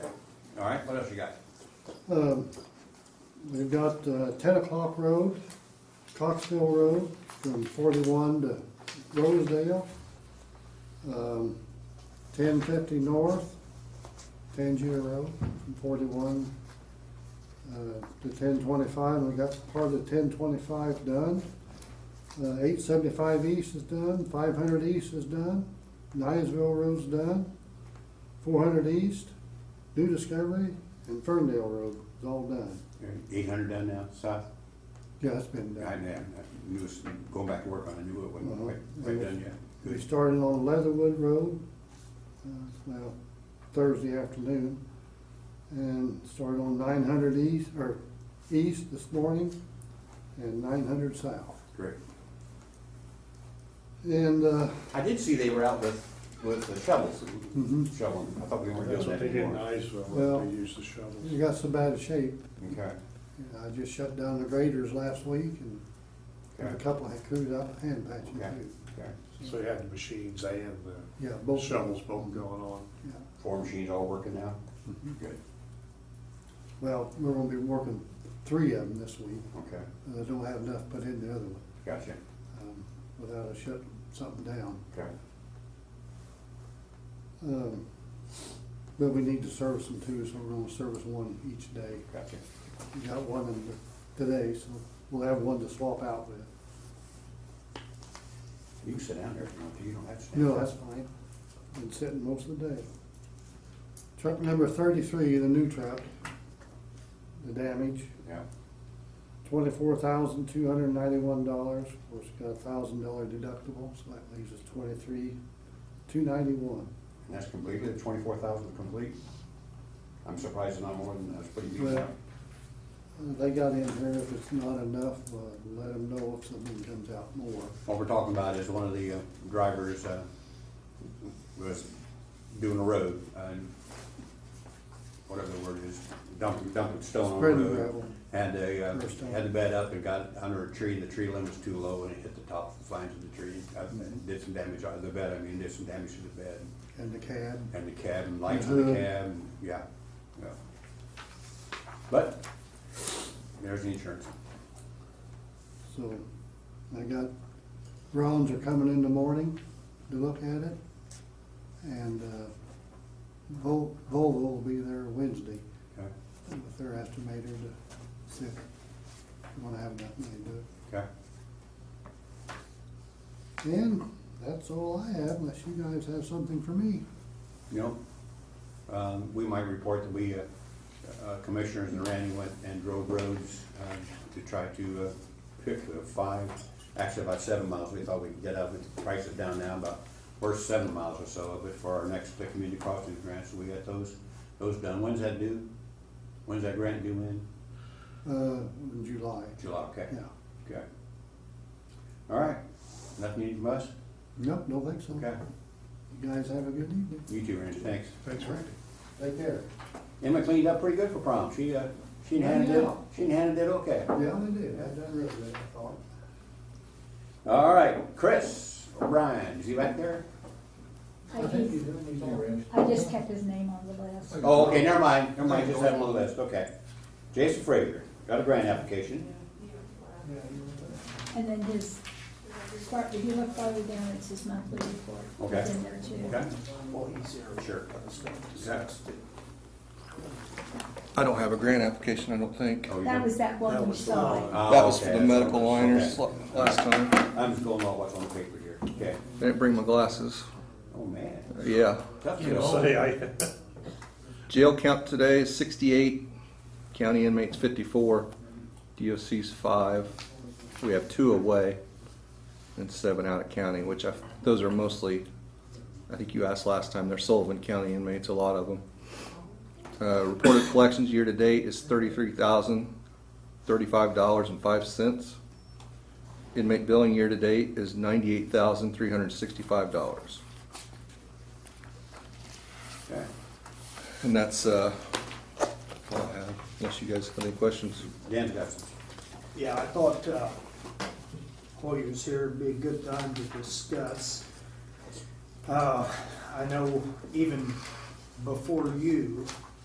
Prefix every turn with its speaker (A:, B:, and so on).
A: All right, what else you got?
B: Um, We've got uh, Ten O'Clock Road, Coxville Road, from forty-one to Rosedale. Um, Ten fifty North, Tangier Road, from forty-one uh, to ten twenty-five. We got part of ten twenty-five done. Uh, Eight seventy-five East is done, five hundred East is done, Niceville Road's done, four hundred East, New Discovery, and Ferndale Road is all done.
A: Eight hundred done now, south?
B: Yeah, it's been
A: I, I
B: done.
A: knew, it's- going back to work on a new one, wasn't quite, quite done yet.
B: We
A: Good.
B: started on Leatherwood Road, uh, well, Thursday afternoon, and started on nine hundred east, or east this morning, and nine hundred south.
A: Great.
B: And, uh,
A: I did see they were out with, with the shovels,
B: Mhm.
A: shoveling. I thought we weren't
C: That's
A: doing that
C: what they did in
A: anymore.
B: Well-
C: Iceville, they used the
B: it
C: shovels.
B: got so bad a shape,
A: Okay,
B: and I just shut down the graders last week and got a
A: okay,
B: couple of crews out hand patching
A: Okay.
B: too.
A: okay.
C: So you had the machines and
B: Yeah,
C: the
B: both.
C: shovels both going on.
B: Yeah.
A: Four machines all working now? Good,
B: Well, we're gonna be working three of them this week.
A: okay,
B: Uh, don't have enough put in the other one,
A: gotcha,
B: um, without us shutting something down.
A: okay.
B: Um, but we need to service them too, so we're gonna service one each day.
A: Gotcha.
B: We got one in the- today, so we'll have one to swap out with.
A: You can sit down there if you want to, you don't have to stand.
B: No, that's fine. Been sitting most of the day. Truck number thirty-three, the new truck, the damage,
A: Yeah,
B: twenty-four thousand, two hundred and ninety-one dollars. Of course, got a thousand dollar deductible, so that leaves us twenty-three, two ninety-one.
A: and that's completed, twenty-four thousand complete? I'm surprised it's not more than, that's pretty decent.
B: Well, Uh, They got in here, if it's not enough, uh, let them know if something comes out more.
A: What we're talking about is one of the uh, drivers uh, was doing a road, and whatever the word is, dumping, dumping stone on the
B: Spreading
A: road.
B: gravel.
A: Had a, uh,
B: Or stone.
A: had the bed up and got under a tree, and the tree limb was too low, and it hit the top flange of the tree. Uh,
B: Mm-hmm.
A: Did some damage out of the bed, I mean, did some damage to the bed,
B: And the cab,
A: and the cab, and lights on the
B: Mhm.
A: cab, and, yeah, yeah. But, there's the insurance.
B: so I got, Rollins are coming in the morning to look at it. And uh, Vol- Volvo will be there Wednesday
A: Okay,
B: with their estimator to see if they wanna have nothing they do. it.
A: okay,
B: And that's all I have unless you guys have something for me.
A: you know, Um, we might report that we, uh, uh, commissioners and Randy went and drove roads, um, to try to, uh, pick uh, five, actually about seven miles, we thought we could get up, we priced it down now, about, we're seven miles or so of it for our next uh, community crossing grant, so we got those, those done, when's that due? When's that grant due in?
B: Uh, in July,
A: July, okay,
B: yeah.
A: okay. All right, nothing needed from us,
B: Nope, don't think so.
A: okay,
B: You guys have a good evening.
A: you too, Randy, thanks.
C: Thanks, Randy.
B: Take care.
A: Emma cleaned up pretty good for prom, she, uh, she handled it,
B: Yeah.
A: she handled it okay.
B: Yeah, they did. I done really good, I thought.
A: All right, Chris O'Brien, is he back there?
D: I just, I just kept his name on the list.
A: Oh, okay, never mind, never mind, just have him on the list, okay. Jason Frazier, got a grant application,
D: And then his, far- if you look farther down, it's his monthly report.
A: Okay.
D: It's in there too.
A: okay? Sure. Oh, Exactly.
E: I don't have a grant application, I don't think.
A: Oh, you
D: That
A: don't-
D: was that one we saw.
A: Oh,
E: That was for
A: okay,
E: the
A: that's
E: medical
A: what it was,
E: liners
A: okay.
E: la- last time.
A: I'm just going off what's on the paper here, okay.
E: They didn't bring my glasses.
A: Oh, man,
E: Yeah.
A: tough to
C: You know,
A: know.
C: say I,
E: Jail count today is sixty-eight, county inmates fifty-four, DOC's five. We have two away and seven out of county, which I, those are mostly, I think you asked last time, they're Sullivan County inmates, a lot of them. Uh, reported collections year-to-date is thirty-three thousand, thirty-five dollars and five cents. Inmate billing year-to-date is ninety-eight thousand, three hundred and sixty-five dollars.
A: Okay.
E: And that's, uh, all I have, unless you guys have any questions.
A: Dan's got some.
F: Yeah, I thought uh, while he was here, it'd be a good time to discuss. Uh, I know even before you,